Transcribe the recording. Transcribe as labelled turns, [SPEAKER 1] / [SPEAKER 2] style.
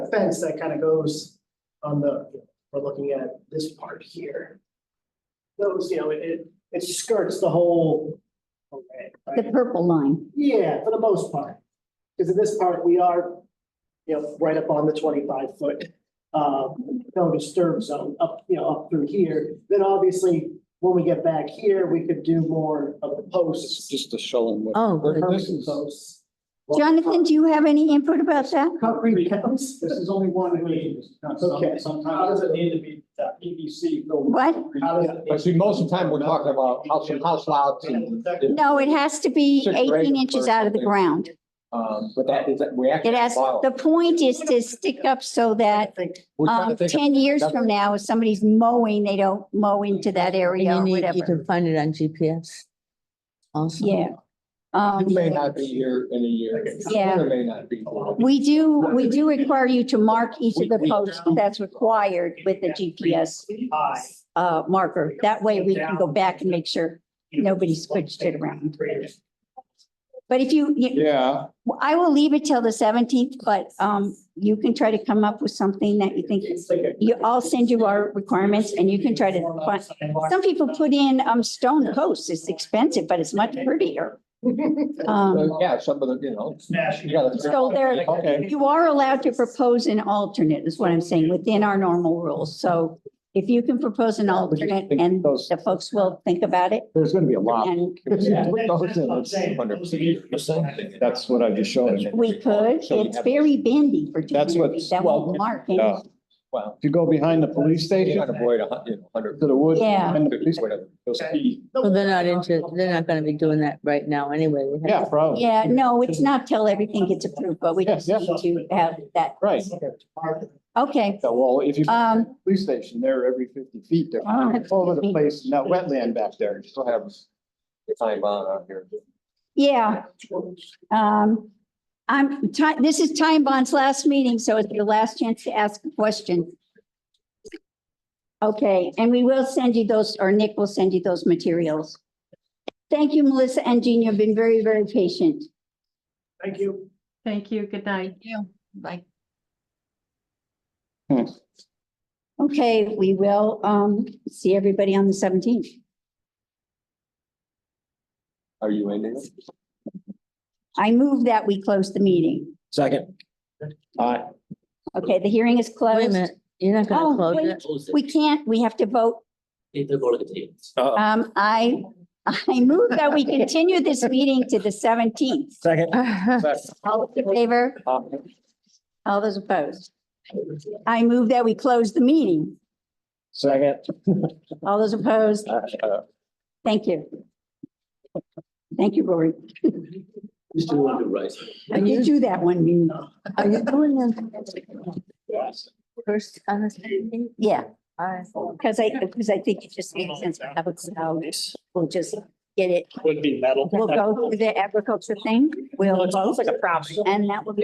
[SPEAKER 1] fence that kind of goes on the, we're looking at this part here. Those, you know, it- it, it skirts the whole array,
[SPEAKER 2] The
[SPEAKER 1] right?
[SPEAKER 2] purple line.
[SPEAKER 1] Yeah, for the most part. Because in this part, we are, you know, right up on the twenty-five foot, uh, no disturb zone up, you know, up through here. Then obviously, when we get back here, we could do more of the
[SPEAKER 3] It's
[SPEAKER 1] posts.
[SPEAKER 3] just to show them what.
[SPEAKER 2] Oh,
[SPEAKER 3] Where
[SPEAKER 2] good.
[SPEAKER 3] this is-
[SPEAKER 1] Posts.
[SPEAKER 2] Jonathan, do you have any input about that?
[SPEAKER 1] Concrete counts.
[SPEAKER 4] This is only one meeting.
[SPEAKER 1] Okay.
[SPEAKER 4] How does it need to be that PVC filled?
[SPEAKER 2] What?
[SPEAKER 4] How does it-
[SPEAKER 3] But see, most of the time, we're talking about house, house louds and,
[SPEAKER 2] No, it has to be
[SPEAKER 3] Sixth grade
[SPEAKER 2] eighteen
[SPEAKER 3] or
[SPEAKER 2] inches out of the
[SPEAKER 3] something.
[SPEAKER 2] ground.
[SPEAKER 3] um, but that is, we actually.
[SPEAKER 2] It has,
[SPEAKER 3] borrow.
[SPEAKER 2] the point is to stick up so that
[SPEAKER 3] We're trying to
[SPEAKER 2] um,
[SPEAKER 3] think of-
[SPEAKER 2] ten years
[SPEAKER 3] that's-
[SPEAKER 2] from now, if somebody's mowing, they don't mow into that area or
[SPEAKER 5] And you need, you
[SPEAKER 2] whatever.
[SPEAKER 5] can find it on GPS. Also.
[SPEAKER 2] Yeah. Um,
[SPEAKER 3] You may not be here in a year.
[SPEAKER 2] Yeah.
[SPEAKER 3] You may not be.
[SPEAKER 2] we do, we do require you to mark each of the
[SPEAKER 3] We- we-
[SPEAKER 2] posts that's required with the GPS
[SPEAKER 1] High.
[SPEAKER 2] uh, marker. That way we can go back and make sure. Nobody switched it around. But if you, you-
[SPEAKER 3] Yeah.
[SPEAKER 2] I will leave it till the seventeenth, but um, you can try to come up with something that you think is, you, I'll send you our requirements and you can try to find. Some people put in um, stone posts. It's expensive, but it's much prettier. Um,
[SPEAKER 3] Yeah, some of the, you know.
[SPEAKER 1] Smash.
[SPEAKER 3] you gotta-
[SPEAKER 2] So there-
[SPEAKER 3] Okay.
[SPEAKER 2] you are allowed to propose an alternate is what I'm saying, within our normal rules. So if you can propose an alternate and the folks will think about it
[SPEAKER 3] There's gonna be a lot.
[SPEAKER 2] and
[SPEAKER 3] That's what I just showed. you.
[SPEAKER 2] we could,
[SPEAKER 3] So you
[SPEAKER 2] it's
[SPEAKER 3] have-
[SPEAKER 2] very bendy for two
[SPEAKER 6] That's
[SPEAKER 2] communities.
[SPEAKER 6] what's-
[SPEAKER 2] That
[SPEAKER 3] well,
[SPEAKER 2] won't mark any.
[SPEAKER 6] yeah.
[SPEAKER 3] Well,
[SPEAKER 6] If you go behind the police
[SPEAKER 3] you
[SPEAKER 6] station
[SPEAKER 3] gotta avoid a hun- you know, hundred.
[SPEAKER 6] to the woods.
[SPEAKER 2] Yeah.
[SPEAKER 6] behind the police-
[SPEAKER 3] Whatever.
[SPEAKER 5] Well, they're not into, they're not gonna be doing that right now anyway. We have-
[SPEAKER 6] Yeah,
[SPEAKER 3] oh.
[SPEAKER 6] probably.
[SPEAKER 2] Yeah, no, it's not till everything gets approved, but we just
[SPEAKER 6] Yeah,
[SPEAKER 2] need to have that.
[SPEAKER 6] Right.
[SPEAKER 2] Okay,
[SPEAKER 6] Yeah, Well, if you,
[SPEAKER 2] um,
[SPEAKER 6] police station, they're every fifty feet. They're
[SPEAKER 2] Oh, that's
[SPEAKER 6] all over the
[SPEAKER 2] fifty.
[SPEAKER 6] place. And that wetland back there, you still have
[SPEAKER 3] Time on out here.
[SPEAKER 2] yeah. Um, I'm, Ti- this is Time Bond's last meeting, so it's your last chance to ask a question. Okay, and we will send you those, or Nick will send you those materials. Thank you, Melissa and Jean. You've been very, very patient.
[SPEAKER 1] Thank you.
[SPEAKER 7] Thank you. Good night. You. Bye.
[SPEAKER 2] Okay, we will, um, see everybody on the seventeenth.
[SPEAKER 3] Are you ending? it?
[SPEAKER 2] I move that we close the meeting.
[SPEAKER 6] Second. Aye.
[SPEAKER 2] Okay, the hearing is closed.
[SPEAKER 5] Wait a minute, you're not
[SPEAKER 2] Oh,
[SPEAKER 5] gonna
[SPEAKER 2] wait.
[SPEAKER 5] close it.
[SPEAKER 2] We can't, we have to vote.
[SPEAKER 4] Need to go to the tables.
[SPEAKER 2] Um, I, I move that we continue this meeting to the seventeenth.
[SPEAKER 6] Second.
[SPEAKER 2] All those in favor?
[SPEAKER 6] Aye.
[SPEAKER 2] All those opposed? I move that we close the meeting.
[SPEAKER 6] Second.
[SPEAKER 2] All those opposed?
[SPEAKER 6] Uh, uh,
[SPEAKER 2] Thank you. Thank you, Rory.
[SPEAKER 4] Mr. Wonder Rice.
[SPEAKER 2] I did do that one meeting.
[SPEAKER 5] Are you doing them? First, on this meeting?
[SPEAKER 2] Yeah, because I, because I think it just makes sense to have a cloud. We'll just get it.
[SPEAKER 4] Would be metal.
[SPEAKER 2] We'll go through the agriculture thing. We'll vote,
[SPEAKER 4] like a problem.
[SPEAKER 2] and that will be